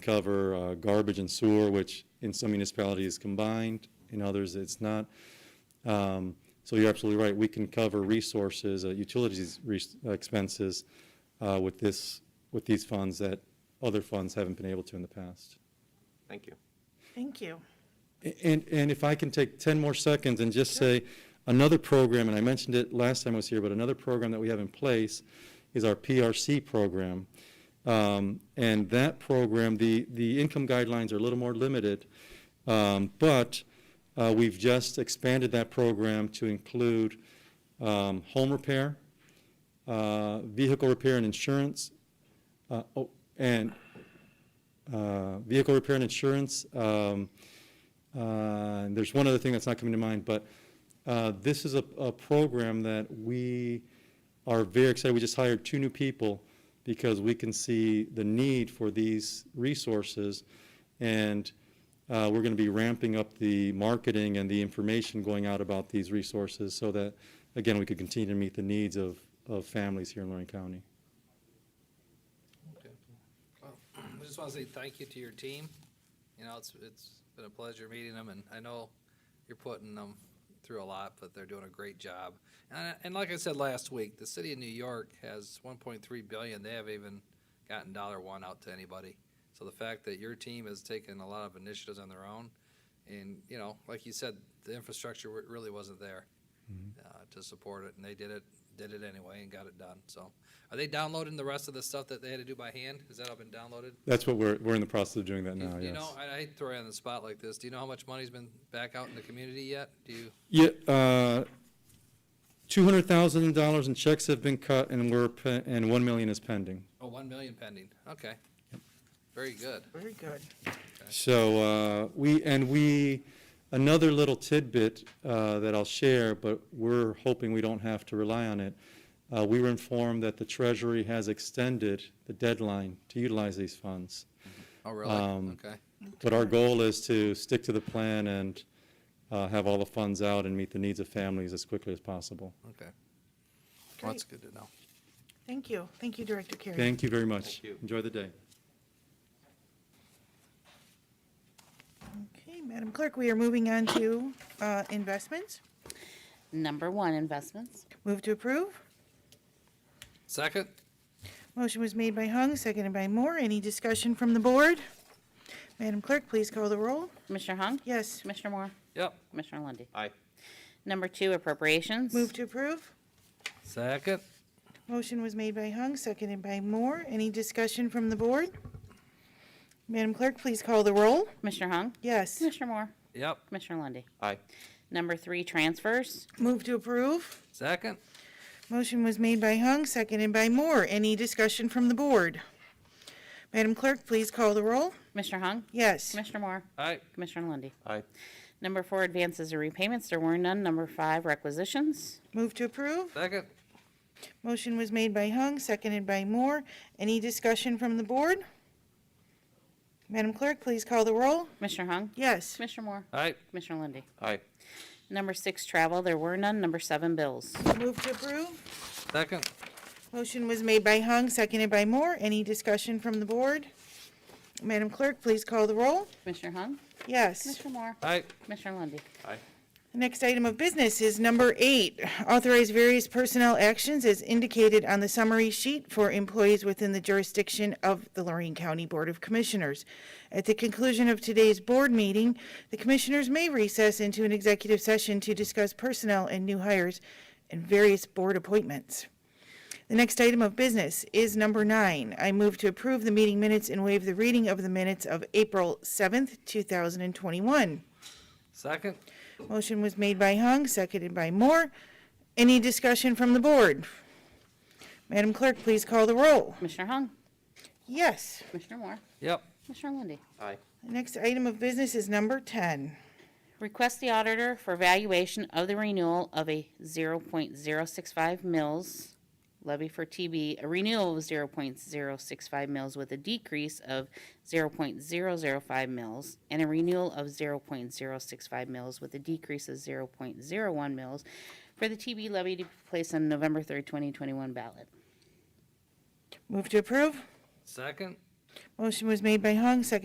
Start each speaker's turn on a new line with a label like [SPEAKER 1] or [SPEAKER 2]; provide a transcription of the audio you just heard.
[SPEAKER 1] cover uh, garbage and sewer, which in some municipalities is combined, in others it's not. Um, So you're absolutely right, we can cover resources, uh, utilities res- expenses uh, with this, with these funds that other funds haven't been able to in the past.
[SPEAKER 2] Thank you.
[SPEAKER 3] Thank you.
[SPEAKER 1] And, and if I can take 10 more seconds and just say, another program, and I mentioned it last time I was here, but another program that we have in place is our PRC program. Um, And that program, the, the income guidelines are a little more limited, um, but uh, we've just expanded that program to include um, home repair, uh, vehicle repair and insurance, uh, oh, and uh, vehicle repair and insurance. um, uh, and There's one other thing that's not coming to mind, but uh, this is a, a program that we are very excited. We just hired two new people because we can see the need for these resources. And uh, we're going to be ramping up the marketing and the information going out about these resources so that, again, we could continue to meet the needs of, of families here in Lorraine County.
[SPEAKER 4] Okay. Well, I just want to say thank you to your team. You know, it's, it's been a pleasure meeting them, and I know you're putting them through a lot, but they're doing a great job. And, and like I said last week, the city of New York has one point three billion. They haven't even gotten dollar one out to anybody. So the fact that your team has taken a lot of initiatives on their own, and, you know, like you said, the infrastructure wa- really wasn't there uh, to support it, and they did it, did it anyway and got it done, so. Are they downloading the rest of the stuff that they had to do by hand? Has that all been downloaded?
[SPEAKER 1] That's what we're, we're in the process of doing that
[SPEAKER 4] Do you-
[SPEAKER 1] now,
[SPEAKER 4] do You know,
[SPEAKER 1] yes.
[SPEAKER 4] I I hate to throw you on the spot like this. Do you know how much money's been back out in the community yet? Do you,
[SPEAKER 1] Yeah, uh, $200,000 in checks have been cut and we're, pe- and 1 million is pending.
[SPEAKER 4] oh, one million pending. Okay. Very good.
[SPEAKER 3] Very good.
[SPEAKER 1] So uh, we, and we, another little tidbit uh, that I'll share, but we're hoping we don't have to rely on it. Uh, We were informed that the Treasury has extended the deadline to utilize these funds.
[SPEAKER 4] Oh, really?
[SPEAKER 1] Um,
[SPEAKER 4] Okay.
[SPEAKER 1] But our goal is to stick to the plan and uh, have all the funds out and meet the needs of families as quickly as possible.
[SPEAKER 4] Okay. Well, that's good to know.
[SPEAKER 3] Thank you. Thank you, Director Carey.
[SPEAKER 1] Thank you very much.
[SPEAKER 2] Thank you.
[SPEAKER 1] Enjoy the day.
[SPEAKER 3] Okay, Madam Clerk, we are moving on to uh, investments.
[SPEAKER 5] Number one, investments.
[SPEAKER 3] Move to approve.
[SPEAKER 4] Second?
[SPEAKER 3] Motion was made by Hung, seconded by Moore. Any discussion from the board? Madam Clerk, please call the roll.
[SPEAKER 5] Commissioner Hung?
[SPEAKER 3] Yes,
[SPEAKER 5] Commissioner Moore?
[SPEAKER 4] Yep.
[SPEAKER 5] Commissioner Lundy.
[SPEAKER 2] Aye.
[SPEAKER 5] Number two, appropriations.
[SPEAKER 3] move to approve.
[SPEAKER 4] Second?
[SPEAKER 3] Motion was made by Hung, seconded by Moore. Any discussion from the board? Madam Clerk, please call the roll.
[SPEAKER 5] Commissioner Hung?
[SPEAKER 3] Yes,
[SPEAKER 5] Commissioner Moore?
[SPEAKER 4] Yep.
[SPEAKER 5] Commissioner Lundy.
[SPEAKER 2] Aye.
[SPEAKER 5] Number three, transfers.
[SPEAKER 3] move to approve.
[SPEAKER 4] Second?
[SPEAKER 3] Motion was made by Hung, seconded by Moore. Any discussion from the board? Madam Clerk, please call the roll.
[SPEAKER 5] Commissioner Hung?
[SPEAKER 3] Yes,
[SPEAKER 5] Commissioner Moore?
[SPEAKER 4] Aye.
[SPEAKER 5] Commissioner Lundy.
[SPEAKER 2] Aye.
[SPEAKER 5] Number four, advances or repayments. There were none. Number five, requisitions.
[SPEAKER 3] move to approve.
[SPEAKER 4] Second?
[SPEAKER 3] Motion was made by Hung, seconded by Moore. Any discussion from the board? Madam Clerk, please call the roll.
[SPEAKER 5] Commissioner Hung?
[SPEAKER 3] Yes,
[SPEAKER 5] Commissioner Moore?
[SPEAKER 4] Aye.
[SPEAKER 5] Commissioner Lundy.
[SPEAKER 2] Aye.
[SPEAKER 5] Number six, travel. There were none. Number seven, bills.
[SPEAKER 3] move to approve.
[SPEAKER 4] Second?
[SPEAKER 3] Motion was made by Hung, seconded by Moore. Any discussion from the board? Madam Clerk, please call the roll.
[SPEAKER 5] Commissioner Hung?
[SPEAKER 3] Yes.
[SPEAKER 5] Commissioner Moore?
[SPEAKER 4] Aye.
[SPEAKER 5] Commissioner Lundy.
[SPEAKER 2] Aye.
[SPEAKER 3] The next item of business is number eight, authorize various personnel actions as indicated on the summary sheet for employees within the jurisdiction of the Lorraine County Board of Commissioners. At the conclusion of today's board meeting, the commissioners may recess into an executive session to discuss personnel and new hires and various board appointments. The next item of business is number nine. I move to approve the meeting minutes and waive the reading of the minutes of April 7th, 2021.
[SPEAKER 4] Second?
[SPEAKER 3] Motion was made by Hung, seconded by Moore. Any discussion from the board? Madam Clerk, please call the roll.
[SPEAKER 5] Commissioner Hung?
[SPEAKER 3] Yes.
[SPEAKER 5] Commissioner Moore?
[SPEAKER 4] Yep.
[SPEAKER 5] Commissioner Lundy.
[SPEAKER 2] Aye.
[SPEAKER 3] The next item of business is number 10.
[SPEAKER 5] Request the auditor for valuation of the renewal of a zero point zero six five mills levy for TB, a renewal of zero point zero six five mills with a decrease of zero point zero zero five mills, and a renewal of zero point zero six five mills with a decrease of zero point zero one mills for the TB levy to be placed on November third, twenty twenty-one ballot.
[SPEAKER 3] Move to approve.
[SPEAKER 4] Second?
[SPEAKER 3] Motion was made by Hung, seconded